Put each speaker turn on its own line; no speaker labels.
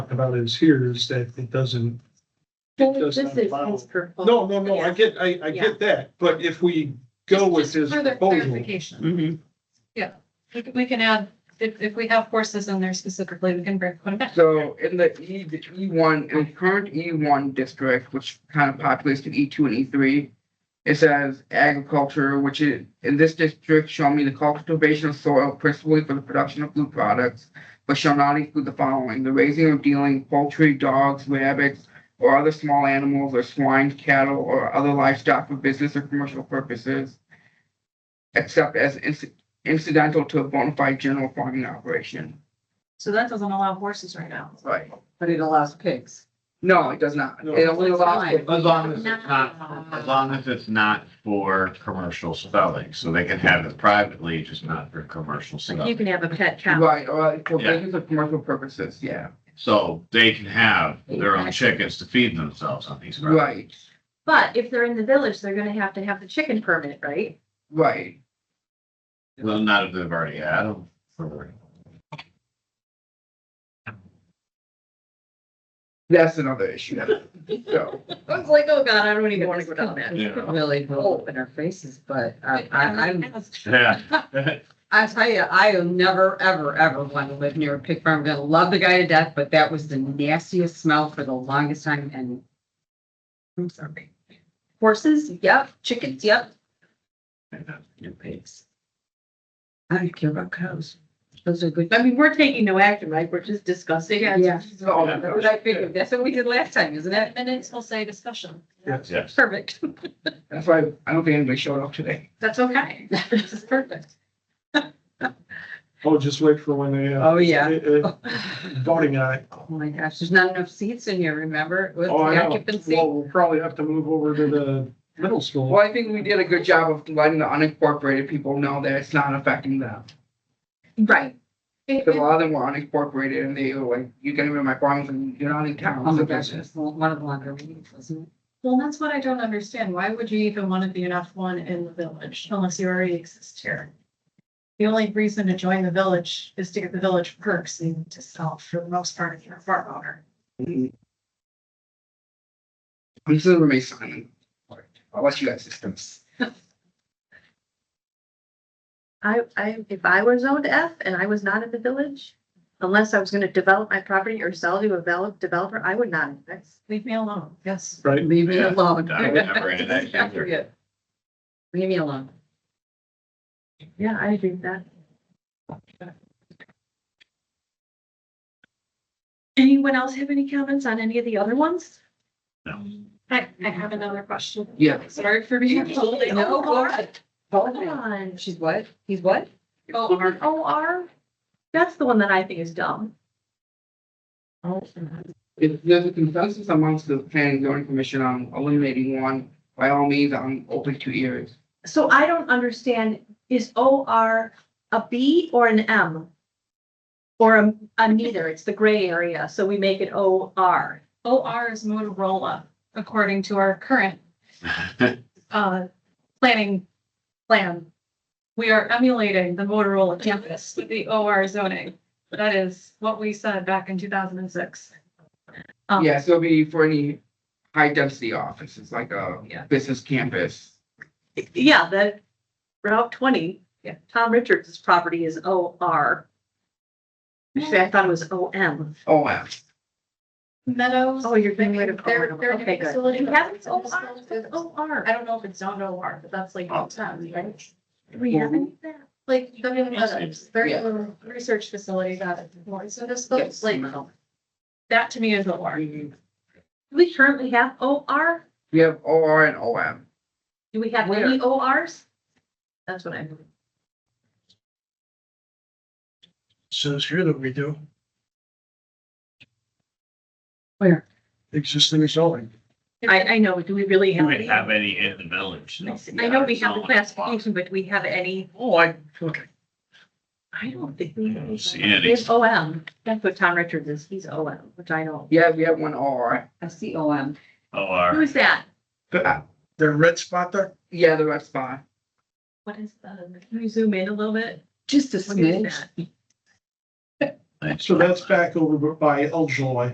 talked about is here is that it doesn't,
This
Just
is
on file.
his proposal.
no, no, no, I get, I, I
Yeah.
get that, but if we go with
Just
his
Further
proposal.
clarification.
Mhm.
We can- We can add, if, if we have courses in there specifically, we can bring them back.
So in the E, E one, in the current E one district, which kind of populates to E two and E three. It says agriculture, which is, in this district shall mean the cultivation of soil principally for the production of food products. But shall not include the following, the raising or dealing poultry, dogs, rabbits, or other small animals or swine, cattle, or other livestock for business or commercial purposes. Except as inci- incidental to a bona fide general farming operation.
So that doesn't allow horses right now.
Right.
But it allows pigs.
No, it does not.
No.
It only allows
Fine.
for
As long as it's not, as long as it's not for commercial spelling, so they can have it privately, just not for commercial
You
spelling.
can have a pet cow.
Right, or for
Yeah.
business or commercial purposes, yeah,
So they can have their own chickens to feed themselves on these. grounds.
right,
But if they're in the village, they're gonna have to have the chicken permit, right?
right.
Well, not if they've already had them. for-
That's another issue. So,
I was like, oh god, I don't even wanna go down that.
Yeah.
Really blow up in our faces, but uh, I, I, I'm,
Yeah.
I tell you, I will never, ever, ever want to live near a pig farm. I'm gonna love the guy to death, but that was the nastiest smell for the longest time and I'm sorry,
Horses, yep, chickens, yep.
no pigs. I don't care about cows. Those are good.
I mean, we're taking no action, right? We're just discussing.
Yeah.
Yeah,
these are all the
that's what I figured. That's what we did last time, isn't it?
Minutes will say discussion.
Yes.
Yes.
Perfect.
That's why I don't think anybody showed up today.
That's okay. This is perfect.
Oh, just wait for when they. uh,
Oh, yeah.
uh, uh, Voting on it.
Oh my gosh, there's not enough seats in here, remember? It was
Oh, I
the
know.
occupancy.
Well, we'll probably have to move over to the middle school.
Well, I think we did a good job of letting the unincorporated people know that it's not affecting them.
Right.
It-
Because a lot of them were unincorporated and they were like, you can even my farms and you're not in town.
Oh my gosh, it was one of the longer meetings, wasn't
Well, that's what I don't understand. Why would you even want to be an F one in the village unless you already exist here? The only reason to join the village is to get the village perks and to sell for the most part if you're a farm owner.
I'm just gonna remain silent. I'll let you guys discuss.
I, I, if I were zoned F and I was not in the village, unless I was gonna develop my property or sell to a develop, developer, I would not invest.
Leave me alone. Yes.
it?
Right?
Leave me
Yeah.
alone.
I would never into that either.
Leave me alone.
Yeah, I agree with that. Anyone else have any comments on any of the other ones?
No.
I, I have another question.
Yeah.
Sorry for being totally.
No, go ahead. Hold
Hold
on.
on.
She's what? He's what?
Oh, our-
O R? That's the one that I think is dumb.
If there's a consensus amongst the planning and zoning commission on eliminating one, by all means, I'm open to ears.
So I don't understand, is O R a B or an M? Or a, a neither, it's the gray area, so we make it O R.
OR is Motorola, according to our current uh, planning plan. We are emulating the Motorola campus with the OR zoning. That is what we said back in two thousand and six.
Oh.
Um,
Yeah, so it'll be for any high density offices, like a
Yeah.
business campus.
Yeah, that Route twenty.
Yeah.
Tom Richards' property is O R. Actually, I thought it was O M.
Oh, wow.
Meadows.
Oh, you're getting
they-
rid of
Their,
OR.
their
Okay,
new
good.
facility.
We have it so far. O R.
I don't know if it's zoned OR, but that's like,
Oh.
town, right?
Do we have any of that?
like the new Meadows, very
Yeah.
little research facility that is more. So this looks
Yes.
like, that to me is OR.
We
Do we currently have O R?
have OR and OM.
Do we have
Where?
any O Rs? That's what I.
says here that we do.
Where?
Existing zoning.
I, I know, do we really
Do
have?
we
any?
have any in the village?
I know we have the classification, but do we have any?
Oh, I, okay.
I don't think we.
I don't
have
see
any.
any.
We have O M. That's what Tom Richards is. He's O M, which I know.
Yeah, we have one OR.
I see O M.
OR.
Who's that?
The red spot there?
Uh, Yeah, the red spot.
What is the, can we zoom in a little bit?
Just a
What is
smidge.
that?
So that's back over by El Joy.